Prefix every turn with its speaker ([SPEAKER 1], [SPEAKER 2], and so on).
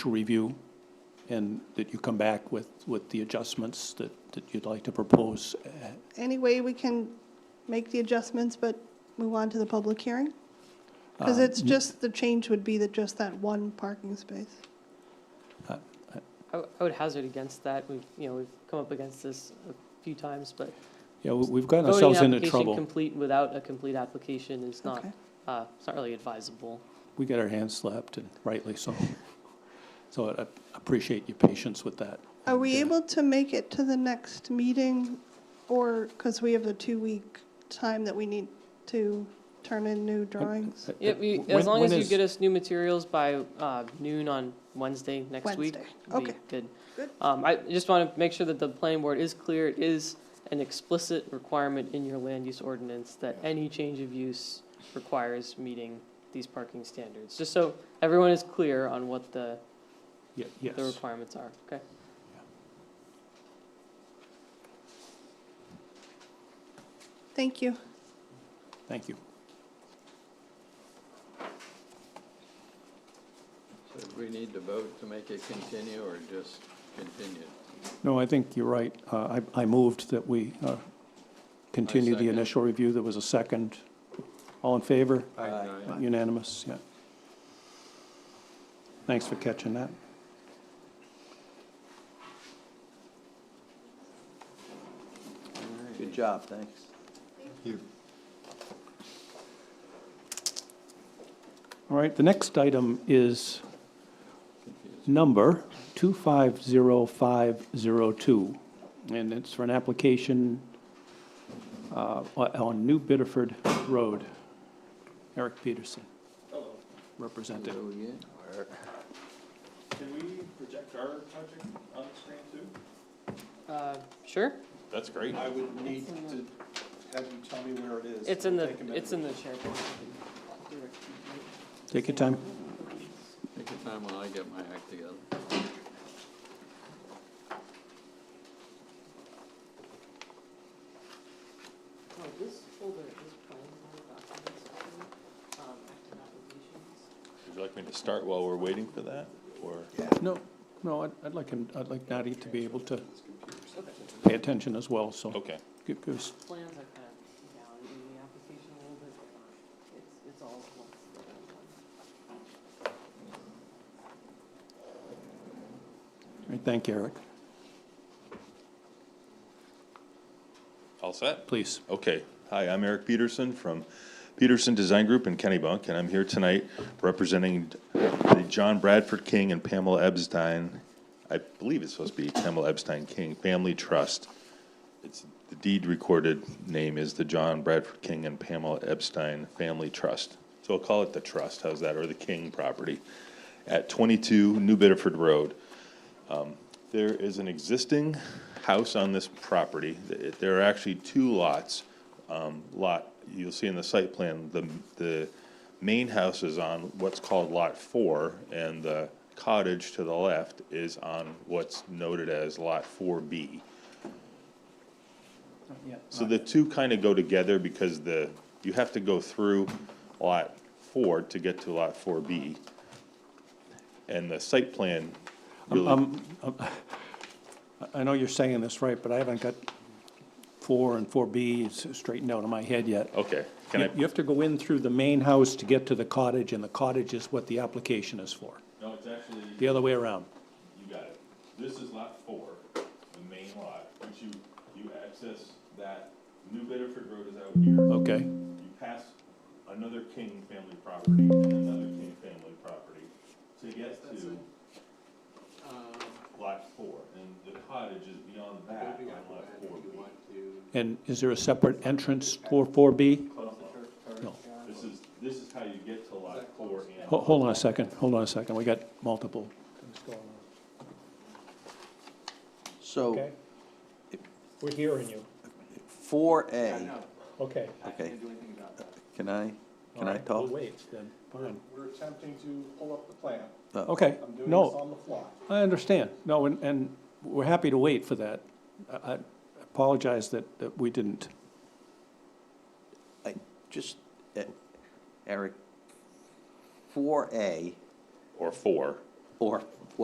[SPEAKER 1] to review and that you come back with, with the adjustments that, that you'd like to propose. Uh,
[SPEAKER 2] Any way we can make the adjustments, but move on to the public hearing?
[SPEAKER 3] Uh,
[SPEAKER 2] Because
[SPEAKER 1] um,
[SPEAKER 2] it's just, the change would be that just that one parking space.
[SPEAKER 3] I w- I would hazard against that. We've, you know, we've come up against this a few times, but
[SPEAKER 1] Yeah, we- we've gotten
[SPEAKER 3] voting
[SPEAKER 1] ourselves
[SPEAKER 3] an
[SPEAKER 1] into
[SPEAKER 3] application
[SPEAKER 1] trouble.
[SPEAKER 3] complete without a complete application is not,
[SPEAKER 2] Okay.
[SPEAKER 3] uh, it's not really advisable.
[SPEAKER 1] We get our hands slapped and rightly so. So I appreciate your patience with that.
[SPEAKER 2] Are we
[SPEAKER 1] And, uh,
[SPEAKER 2] able to make it to the next meeting? Or, because we have a two-week time that we need to turn in new drawings?
[SPEAKER 1] uh,
[SPEAKER 3] Yeah, we-
[SPEAKER 1] when-
[SPEAKER 3] as long
[SPEAKER 1] when
[SPEAKER 3] as you
[SPEAKER 1] is-
[SPEAKER 3] get us new materials by uh, noon on Wednesday next week.
[SPEAKER 2] Wednesday.
[SPEAKER 3] would be
[SPEAKER 2] Okay.
[SPEAKER 3] Good.
[SPEAKER 2] Good.
[SPEAKER 3] Um, I just want to make sure that the planning board is clear. It is an explicit requirement in your land use ordinance that any change of use requires meeting these parking standards. Just so everyone is clear on what the,
[SPEAKER 1] Ye-
[SPEAKER 3] the
[SPEAKER 1] Yes,
[SPEAKER 3] requirements are, okay?
[SPEAKER 2] Thank you.
[SPEAKER 1] thank you.
[SPEAKER 4] So do we need to vote to make it continue or just continue?
[SPEAKER 1] No, I think you're right. Uh, I, I moved that we uh, continue the
[SPEAKER 4] second.
[SPEAKER 1] initial review. There was a second. All in favor? Unanimous, yeah. Thanks for catching that.
[SPEAKER 5] Good job, thanks.
[SPEAKER 1] All right, the next item is number 250502, and it's for an application uh, on on New Bedford Road. Eric Peterson. Hello. Represented.
[SPEAKER 4] Hello again.
[SPEAKER 6] Can we project our project on the screen too?
[SPEAKER 3] Uh, Sure?
[SPEAKER 6] That's great. I would need to have you tell me where it is.
[SPEAKER 3] It's in the,
[SPEAKER 6] Take a minute.
[SPEAKER 3] it's in the SharePoint. Oh,
[SPEAKER 1] Take your time.
[SPEAKER 4] Take your time while I get my act together.
[SPEAKER 3] Oh, this folder is planning documents, um, active applications.
[SPEAKER 6] Would you like me to start while we're waiting for that, or?
[SPEAKER 1] No, no, I'd- I'd like him, I'd like Nadia to be able to pay attention as well, so.
[SPEAKER 6] Okay.
[SPEAKER 1] Give give us
[SPEAKER 3] plans are kind of down in the application a little bit, but it's, it's all lumped together in one.
[SPEAKER 1] All right, Thank you, Eric.
[SPEAKER 6] All set?
[SPEAKER 1] Please.
[SPEAKER 6] Okay. Hi, I'm Eric Peterson from Peterson Design Group in Kennebunk, and I'm here tonight representing the John Bradford King and Pamela Epstein, I believe it's supposed to be Pamela Epstein King Family Trust. It's, the deed recorded name is the John Bradford King and Pamela Epstein Family Trust. So I'll call it the trust, how's that, or the King property, at 22 New Bedford Road. There is an existing house on this property. Th- There are actually two lots. Um, Lot, you'll see in the site plan, the, the main house is on what's called Lot Four, and the cottage to the left is on what's noted as Lot Four B. So the two kind of go together because the, you have to go through Lot Four to get to Lot Four B. And the site plan really.
[SPEAKER 1] I- I know you're saying this right, but I haven't got four and four B s- straightened out in my head yet.
[SPEAKER 6] Okay, can I?
[SPEAKER 1] You you have to go in through the main house to get to the cottage, and the cottage is what the application is for.
[SPEAKER 6] No, it's actually,
[SPEAKER 1] The other way around.
[SPEAKER 6] you got it. This is lot four, the main lot, which you, you access that New Bedford Road is out here.
[SPEAKER 1] Okay,
[SPEAKER 6] You pass another King family property and another King family property to get to lot four. And the cottage is beyond that on lot four B.
[SPEAKER 1] and is there a separate entrance for four B? No.
[SPEAKER 6] This is, this is how you get to lot four and.
[SPEAKER 1] Ho- Hold on a second, hold on a second, we got multiple.
[SPEAKER 5] So,
[SPEAKER 1] We're hearing you.
[SPEAKER 5] four A,
[SPEAKER 1] Okay.
[SPEAKER 5] okay. Can I,
[SPEAKER 1] All
[SPEAKER 5] can I
[SPEAKER 1] right, we'll
[SPEAKER 5] talk?
[SPEAKER 1] wait then. Fine.
[SPEAKER 7] We're attempting to pull up the plan.
[SPEAKER 5] Uh,
[SPEAKER 1] Okay,
[SPEAKER 7] I'm doing this
[SPEAKER 1] no,
[SPEAKER 7] on the fly.
[SPEAKER 1] I understand. No, and, and we're happy to wait for that. I I apologize that, that we didn't.
[SPEAKER 5] I, just, eh, Eric, four A,
[SPEAKER 6] Or four,
[SPEAKER 5] or